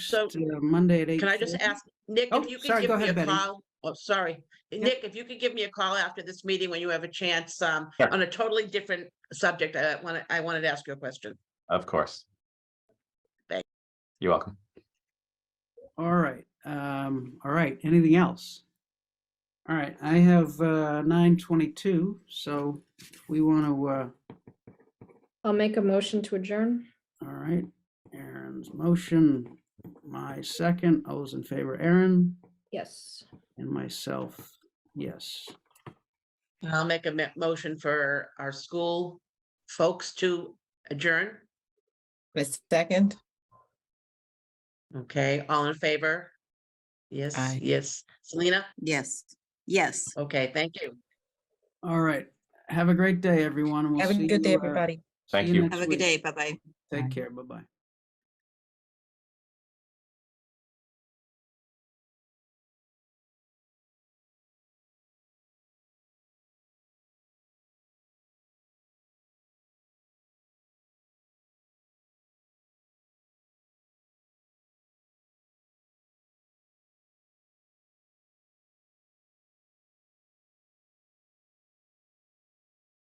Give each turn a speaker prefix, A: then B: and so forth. A: So-
B: uh, Monday at eight.
A: Can I just ask, Nick,
B: Oh,
A: if you could
B: sorry, go
A: give me
B: ahead,
A: a
B: Betty.
A: call? Oh, sorry. Nick, if you could give me a call after this meeting when you have a chance, um,
C: Sure.
A: on a totally different subject, I want, I wanted to ask you a question.
C: Of course.
A: Thank-
C: You're welcome.
B: All right, um, all right, anything else? All right, I have, uh, nine twenty-two, so if we want to, uh,
D: I'll make a motion to adjourn.
B: all right, Aaron's motion, my second, all those in favor, Aaron,
D: Yes.
B: and myself, yes. Uh-huh.
A: I'll make a mo- motion for our school folks to adjourn.
E: A second?
A: Okay, all in favor? Yes,
E: Aye.
A: yes. Selena?
F: Yes, yes.
A: Okay, thank you.
B: All right, have a great day, everyone. and we'll
E: Have a
B: see
E: good day,
B: you, uh,
E: everybody.
B: see
C: Thank you.
B: next
F: Have a good
B: week.
F: day. Bye-bye.
B: Take care, bye-bye.